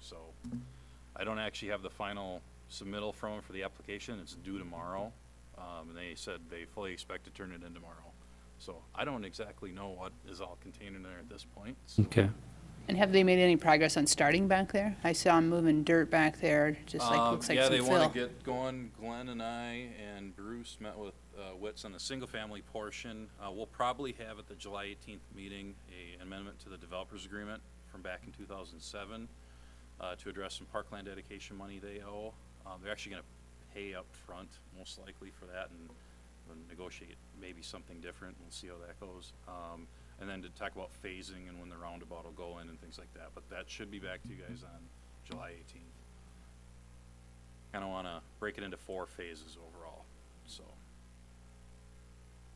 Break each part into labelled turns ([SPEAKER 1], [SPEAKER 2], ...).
[SPEAKER 1] so I don't actually have the final submittal from 'em for the application, it's due tomorrow. Um, and they said they fully expect to turn it in tomorrow. So I don't exactly know what is all contained in there at this point, so.
[SPEAKER 2] Okay.
[SPEAKER 3] And have they made any progress on starting back there? I saw them moving dirt back there, just like,
[SPEAKER 1] Um,
[SPEAKER 3] looks like
[SPEAKER 1] yeah,
[SPEAKER 3] some
[SPEAKER 1] they want to
[SPEAKER 3] fill.
[SPEAKER 1] get going. Glenn and I and Bruce met with uh, Witz on the single-family portion. Uh, we'll probably have at the July 18th meeting a amendment to the developers agreement from back in 2007 uh, to address some parkland dedication money they owe. Um, they're actually going to pay up front, most likely, for that, and we'll negotiate maybe something different. We'll see how that goes. Um, and then to talk about phasing and when the roundabout will go in and things like that. But that should be back to you guys on July 18th kind of want to break it into four phases overall, so.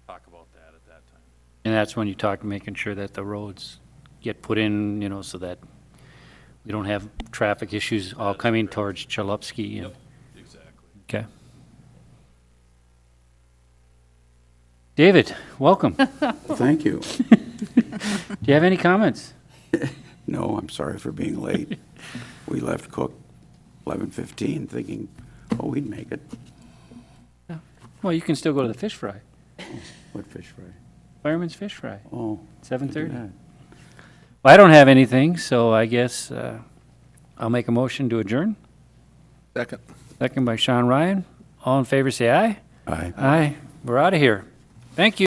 [SPEAKER 1] Talk about that at that time.
[SPEAKER 2] And that's when you talk, making sure that the roads get put in, you know, so that we don't have traffic issues all
[SPEAKER 1] That is
[SPEAKER 2] coming
[SPEAKER 1] correct.
[SPEAKER 2] towards Chalupski. and-
[SPEAKER 1] Exactly.
[SPEAKER 2] Okay. David, welcome. Do
[SPEAKER 4] Thank you.
[SPEAKER 2] you have any comments?
[SPEAKER 4] No, I'm sorry for being late. We left Cook 11:15 thinking, oh, we'd make it.
[SPEAKER 2] Well, you can still go to the fish fry,
[SPEAKER 4] What fish fry?
[SPEAKER 2] Fireman's Fish Fry,
[SPEAKER 4] Oh. we did
[SPEAKER 2] 7:30.
[SPEAKER 4] that.
[SPEAKER 2] Well, I don't have anything, so I guess uh, I'll make a motion to adjourn.
[SPEAKER 5] Second.
[SPEAKER 2] Second by Sean Ryan. All in favor, say aye.
[SPEAKER 4] Aye.
[SPEAKER 2] Aye. We're out of here. Thank you.